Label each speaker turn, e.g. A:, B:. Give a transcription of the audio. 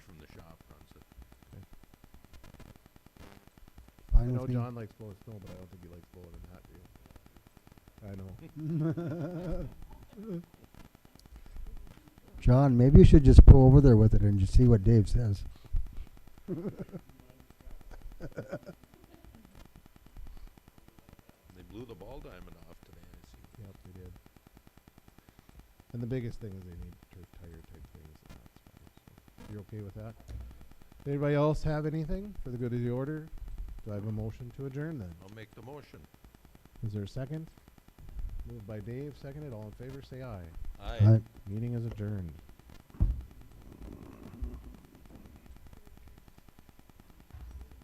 A: fine
B: I know
A: with me.
B: John likes blowing snow, but I don't think he likes blowing in hot wheels. I know.
A: John, maybe you should just pull over there with it and just see what Dave says.
C: They blew the ball diamond off today, I see.
B: Yep, they did. And the biggest thing is they need tur- tire type things. and that's fine, so. You okay with that? Anybody else have anything for the good of the order? Do I have a motion to adjourn then?
C: I'll make the motion.
B: Is there a second? Moved by Dave, seconded. All in favor, say aye.
C: Aye.
A: Right.
B: Meeting is adjourned.